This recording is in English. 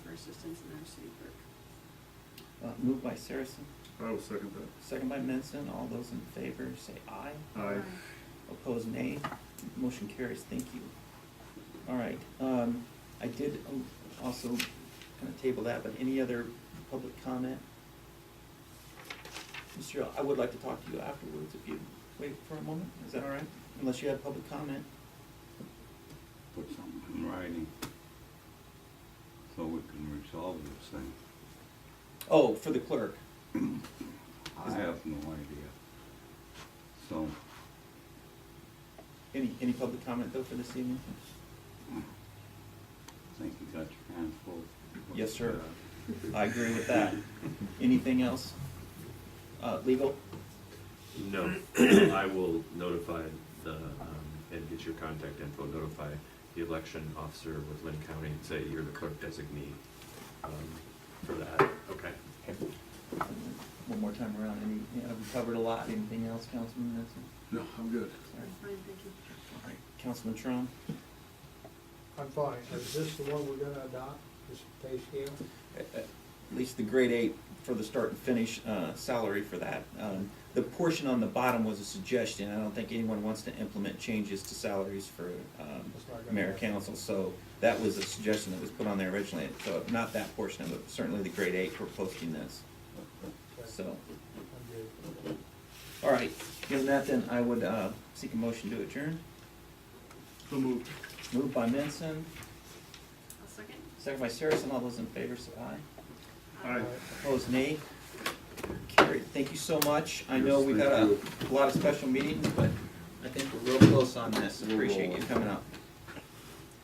assistance in our city clerk. Uh, Moved by Saracen, I will second that. second by Menson. All those in favor say aye. Aye. Opposed, nay. Motion carries. Thank you. All right, um, I did um, also kind of table that, but any other public comment? Mr. Yao, I would like to talk to you afterwards if you wait for a moment. Is that all right? Unless you have public comment. put something in writing so we can resolve this thing. Oh, for the clerk. I have no idea. So, Any, any public comment though for this evening? I think you got your hands full. Uh, Yes, sir. I agree with that. Anything else? Uh, legal? No, I will notify the, um, and get your contact info, notify the election officer with Lynn County and say you're the clerk designee, um, for that, okay? One more time around, any, yeah, we covered a lot, anything else, Councilman Menson? No, I'm good. Sorry. I'm fine, thank you. All right, Councilman Trump? I'm fine. Is this the one we're gonna adopt, this pay scale? At least the grade eight for the start and finish uh, salary for that. Um, The portion on the bottom was a suggestion, I don't think anyone wants to implement changes to salaries for um, That's not gonna mayor happen. council, so that was a suggestion that was put on there originally, so not that portion of it, certainly the grade eight for posting this, Okay, so. I'm good. All right, given that, then I would uh, seek a motion to adjourn. So moved. Moved by Menson, I'll second. second by Saracen, all those in favor say aye. Aye. Opposed, nay. Carried, thank you so much. I know we got a Yes, lot of special meetings, but I think we're real close on this. Appreciate you coming up.